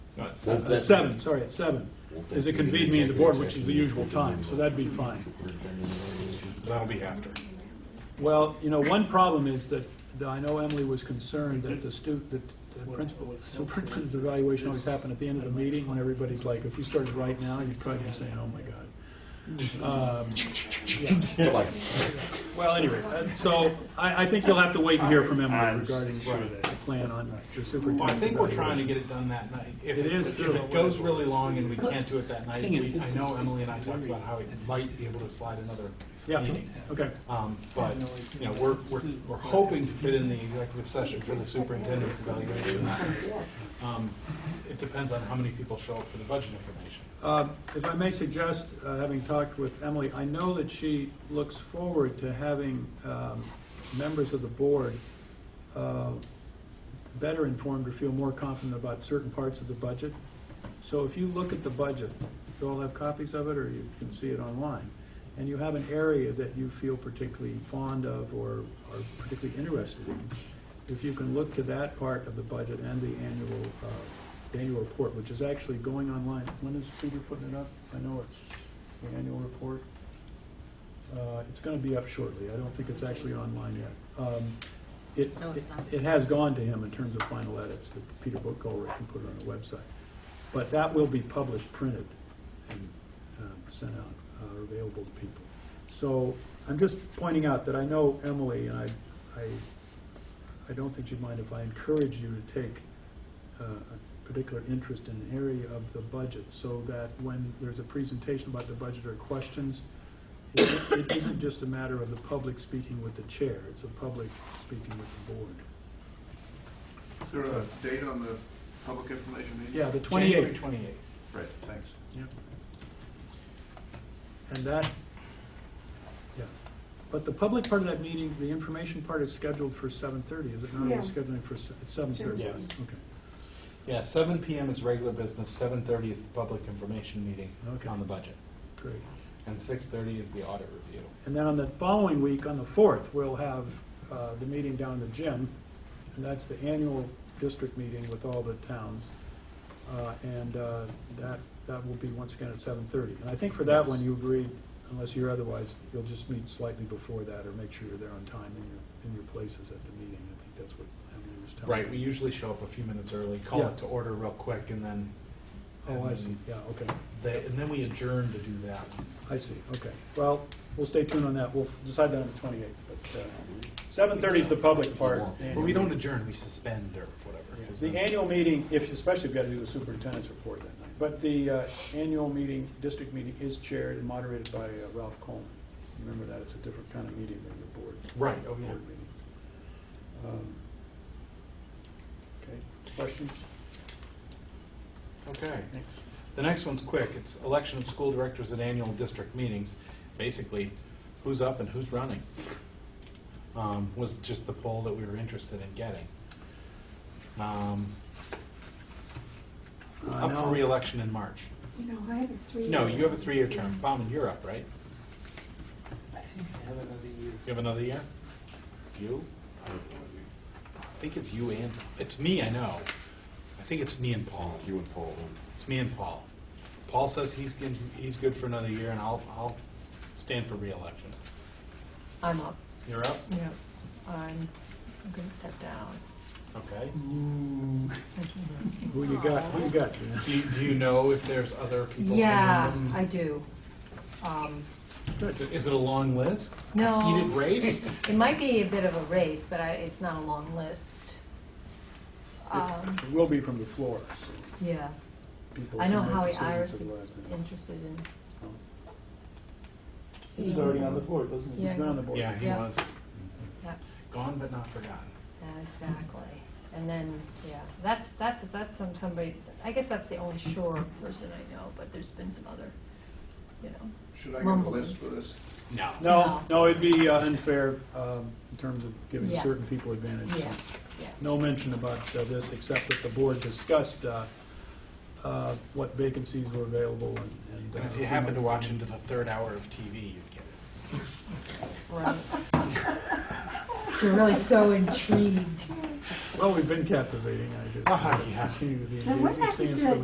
No, it's Won't Uh, seven. that- At seven, sorry, at seven, is it convened me in the board, which is the usual time, so that'd be fine. That'll be after. Well, you know, one problem is that, that I know Emily was concerned that the stu, that the principal, superintendent's evaluation always happened at the end of the meeting, when everybody's like, if you started right now, you'd probably be saying, oh my God. Um, Like, Well, anyway, uh, so I, I think you'll have to wait and hear from Emily I'm regarding sure the that- plan on the Well, I superintendent's think we're trying to evaluation. get it done that night. If It it, is if true. it goes really long and we can't do it that night, Thing is, we- I this know is- Emily and I talked about how we might be able to slide another Yeah, meeting. okay, Um, but, you know, we're, we're, we're hoping to fit in the executive session for the superintendent's evaluation. Um, It depends on how many people show up for the budget information. Um, if I may suggest, uh, having talked with Emily, I know that she looks forward to having um, members of the board uh, better informed or feel more confident about certain parts of the budget. So if you look at the budget, you all have copies of it, or you can see it online, and you have an area that you feel particularly fond of or are particularly interested in, if you can look to that part of the budget and the annual, uh, annual report, which is actually going online, when is Peter putting it up? I know it's the annual report. Uh, It's gonna be up shortly, I don't think it's actually online yet. Um, It, No, it's not. it has gone to him in terms of final edits that Peter Bookgold can put on the website. But that will be published, printed, and um, sent out, uh, or available to people. So I'm just pointing out that I know Emily, and I, I, I don't think you'd mind if I encourage you to take uh, a particular interest in an area of the budget, so that when there's a presentation about the budget or questions, it it isn't just a matter of the public speaking with the chair, it's the public speaking with the board. Is there a date on the public information meeting? Yeah, the January twenty-eighth. twenty-eighth. Right, thanks. And that, yeah. But the public part of that meeting, the information part is scheduled for seven-thirty, is it not? Yeah. We're scheduling for seven-thirty? Yes. Okay, Yeah, seven PM is regular business, seven thirty is the public information meeting Okay. on the budget, great. and six thirty is the audit review. And then on the following week, on the fourth, we'll have uh, the meeting down in the gym, and that's the annual district meeting with all the towns. Uh, And uh, that, that will be once again at seven thirty. And I think for that one, you agreed, unless you're otherwise, you'll just meet slightly before that, or make sure you're there on time in your, in your places at the meeting. I think that's what Emily was telling me. Right, we usually show up a few minutes early, call Yeah. it to order real quick, and then, Oh, I see, yeah, okay, they, and then we adjourn to do that. I see, okay. Well, we'll stay tuned on that, we'll decide that on the twenty-eighth, but uh, seven thirty is the public part. But we don't adjourn, we suspend or whatever. 'cause The then- annual meeting, if, especially if you got to do the superintendent's report that night, but the uh, annual meeting, district meeting is chaired and moderated by uh, Ralph Coleman. Remember that, it's a different kind of meeting than your board. Right, oh, yeah. board meeting. Um, Okay, questions? Okay. Thanks. The next one's quick. It's election of school directors at annual district meetings. Basically, who's up and who's running? Um, was just the poll that we were interested in getting. Um, up for reelection in March. You know, I have a three. No, you have a three-year term. Bauman, you're up, right? I think I have another year. You have another year? You? I think it's you and, it's me, I know. I think it's me and Paul. you and Paul. It's me and Paul. Paul says he's, good- he's good for another year, and I'll, I'll stand for reelection. I'm up. You're up? Yeah, I'm, I'm gonna step down. Okay. Who you got, who you got? Gina? Do you, do you know if there's other people? Yeah, in the- I do. Um, Is it- is it a long list? No. A heated race? it might be a bit of a race, but I, it's not a long list. Um, It will be from the floor, so yeah, people I know can make Howie decisions Oh. Iris at the is last minute. interested in. He's already on the board, wasn't he? Yeah. He's been on the board. Yeah, he Yeah. was. Yeah, Gone but not forgotten. exactly. And then, yeah, that's, that's, that's some, somebody, I guess that's the only sure person I know, but there's been some other, you know. Should I get a list for this? No. No, no, it'd be uh, unfair um, in terms of giving Yeah. certain people advantage. Yeah, yeah. No mention about uh, this, except that the board discussed uh, uh, what vacancies were available and- and. And uh, if you happen to watch into the third hour of TV, you'd get it. Right. You're really so intrigued. Well, we've been captivating, I just Ah, yeah. continue to be And what engaged. It happens seems to that that